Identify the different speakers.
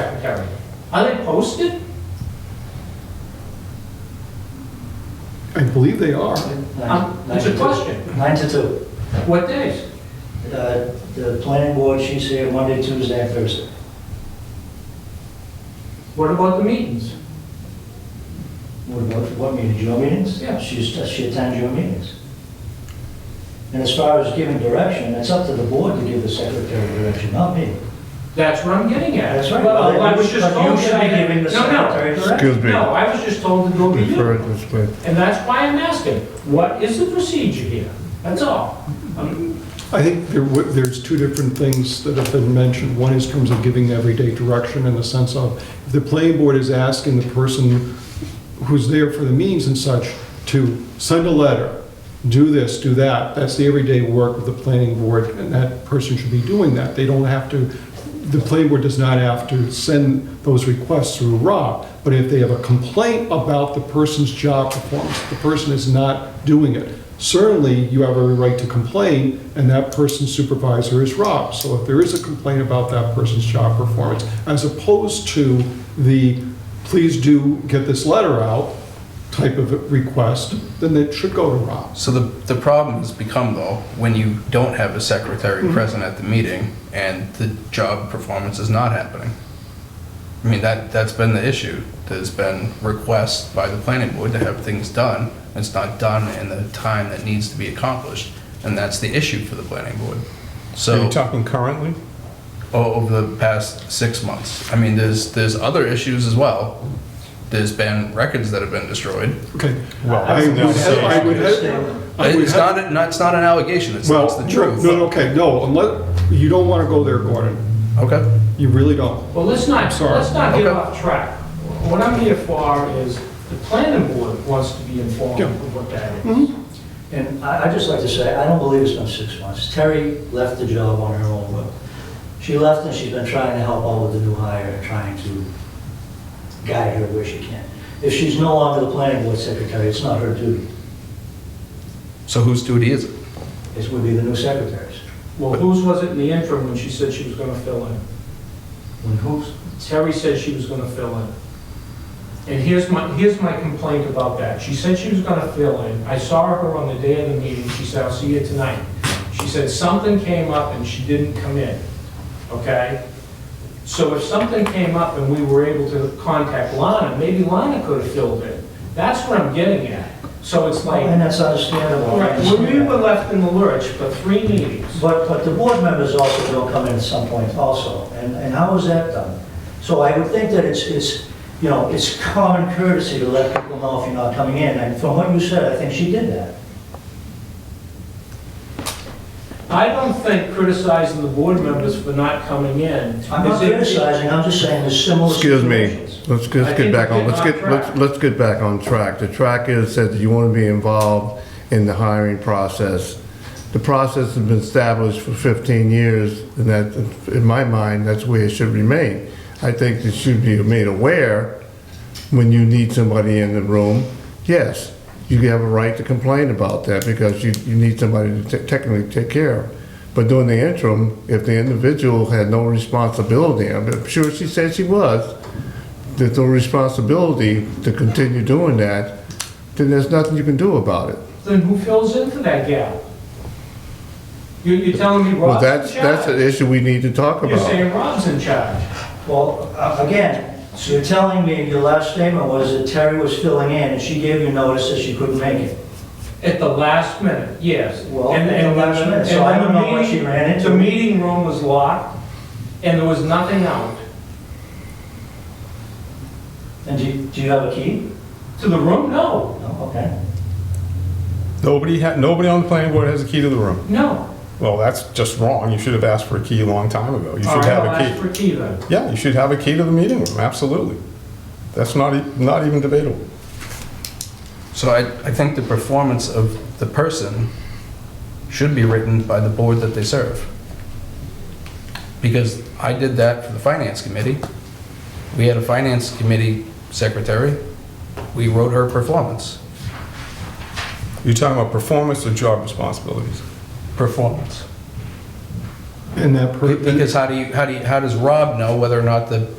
Speaker 1: secretary. Are they posted?
Speaker 2: I believe they are.
Speaker 1: Um,
Speaker 3: Nine-
Speaker 1: It's a
Speaker 3: nine to-
Speaker 1: question.
Speaker 3: Nine to two.
Speaker 1: What days?
Speaker 3: Uh, The planning board, she's here Monday, Tuesday, and Thursday.
Speaker 1: What about the meetings?
Speaker 3: What about, what meetings, your meetings?
Speaker 1: Yeah.
Speaker 3: She's, she attends your meetings. And as far as giving direction, it's up to the board to give the secretary direction, not me.
Speaker 1: That's what I'm getting at.
Speaker 3: That's right.
Speaker 1: Well, I was just
Speaker 3: But you
Speaker 1: told
Speaker 3: should
Speaker 1: that I
Speaker 3: be
Speaker 1: had...
Speaker 3: giving the
Speaker 1: No, no.
Speaker 3: secretary direction.
Speaker 4: Excuse me.
Speaker 1: No, I was just told to go to
Speaker 4: Refer
Speaker 1: you.
Speaker 4: it this way.
Speaker 1: And that's why I'm asking, what is the procedure here? That's all. Um,
Speaker 2: I think there w- there's two different things that have been mentioned. One is in terms of giving everyday direction in the sense of, if the planning board is asking the person who's there for the meetings and such to send a letter, do this, do that, that's the everyday work of the planning board, and that person should be doing that. They don't have to, the planning board does not have to send those requests through Rob, but if they have a complaint about the person's job performance, the person is not doing it, certainly you have every right to complain, and that person's supervisor is Rob. So if there is a complaint about that person's job performance, as opposed to the, please do get this letter out type of request, then it should go to Rob.
Speaker 5: So the, the problem has become though, when you don't have a secretary present at the meeting and the job performance is not happening. I mean, that, that's been the issue. There's been requests by the planning board to have things done. and It's not done in the time that needs to be accomplished. And that's the issue for the planning board.
Speaker 4: Are
Speaker 5: So
Speaker 4: you talking currently?
Speaker 5: o- over the past six months, I mean, there's, there's other issues as well. There's been records that have been destroyed.
Speaker 2: Okay.
Speaker 4: Well,
Speaker 2: I
Speaker 4: that's
Speaker 2: would,
Speaker 4: not
Speaker 2: have- I would,
Speaker 4: saying-
Speaker 2: have- I would
Speaker 5: It's
Speaker 2: Oh, have-
Speaker 5: not, not- it's not an allegation. It's,
Speaker 2: well,
Speaker 5: it's the truth.
Speaker 2: No, no, okay, no, unless, you don't want to go there, Gordon.
Speaker 5: Okay.
Speaker 2: You really don't.
Speaker 1: Well, let's not,
Speaker 2: Sorry.
Speaker 1: let's not get
Speaker 5: Okay.
Speaker 1: off track. What I'm here for is, the planning board wants to be informed
Speaker 2: Yeah.
Speaker 1: of what that is.
Speaker 3: And I, I'd just like to say, I don't believe it's been six months. Terry left the job on her own will. She left and she's been trying to help out with the new hire and trying to guide her where she can. If she's no longer the planning board secretary, it's not her duty.
Speaker 5: So whose duty is it?
Speaker 3: It would be the new secretary's.
Speaker 1: Well, whose was it in the interim when she said she was gonna fill in?
Speaker 3: When who's?
Speaker 1: Terry said she was gonna fill in. And here's my, here's my complaint about that. She said she was gonna fill in. I saw her on the day of the meeting. She said, I'll see you tonight. She said something came up and she didn't come in, okay? So if something came up and we were able to contact Lana, maybe Lana could have filled in. That's what I'm getting at. So it's like,
Speaker 3: And that's understandable. I
Speaker 1: right, we
Speaker 3: understand
Speaker 1: were
Speaker 3: that.
Speaker 1: left in the lurch for three meetings.
Speaker 3: But, but the board members also don't come in at some point also, and, and how is that done? So I would think that it's, it's, you know, it's common courtesy to let people know if you're not coming in, and from what you said, I think she did that.
Speaker 1: I don't think criticizing the board members for not coming in.
Speaker 3: I'm
Speaker 1: is
Speaker 3: not
Speaker 1: it-
Speaker 3: criticizing, I'm just saying there's similar
Speaker 4: Excuse me,
Speaker 3: situations.
Speaker 4: let's,
Speaker 1: I
Speaker 4: let's
Speaker 1: think
Speaker 4: get back
Speaker 1: we're
Speaker 4: on, let's
Speaker 1: getting
Speaker 4: get,
Speaker 1: off
Speaker 4: let's,
Speaker 1: track.
Speaker 4: let's get back on track. The track is, says that you want to be involved in the hiring process. The process has been established for 15 years, and that, in my mind, that's where it should remain. I think it should be made aware when you need somebody in the room. Yes, you have a right to complain about that because you, you need somebody to te- technically take care of. But during the interim, if the individual had no responsibility, I'm sure she said she was, there's no responsibility to continue doing that, then there's nothing you can do about it.
Speaker 1: Then who fills in for that gap? You, you're telling me
Speaker 4: Well,
Speaker 1: Rob's
Speaker 4: that's,
Speaker 1: in charge?
Speaker 4: that's an issue we need to talk
Speaker 1: You're
Speaker 4: about.
Speaker 1: saying Rob's in charge.
Speaker 3: Well, a- again, so you're telling me, your last statement was that Terry was filling in, and she gave you notice that she couldn't make it.
Speaker 1: At the last minute, yes.
Speaker 3: Well,
Speaker 1: And-
Speaker 3: at the
Speaker 1: and-
Speaker 3: last minute,
Speaker 1: and
Speaker 3: so I don't
Speaker 1: the
Speaker 3: know what
Speaker 1: meeting-
Speaker 3: she ran into.
Speaker 1: The meeting room was locked, and there was nothing out.
Speaker 3: And do, you- do you have a key?
Speaker 1: To the room, no,
Speaker 3: No, okay.
Speaker 6: Nobody ha nobody on the planning board has a key to the room.
Speaker 1: no.
Speaker 6: Well, that's just wrong. You should have asked for a key a long time ago. You
Speaker 1: All
Speaker 6: should
Speaker 1: right,
Speaker 6: have
Speaker 1: I'll ask
Speaker 6: a
Speaker 1: for key then.
Speaker 6: key. Yeah, you should have a key to the meeting room, absolutely. That's not, e- not even debatable.
Speaker 5: So I, I think the performance of the person should be written by the board that they serve. Because I did that for the finance committee. We had a finance committee secretary. We wrote her performance.
Speaker 6: You're talking about performance or job responsibilities?
Speaker 5: Performance.
Speaker 2: And that, per-
Speaker 5: Because how do you, how do you, how does Rob know whether or not the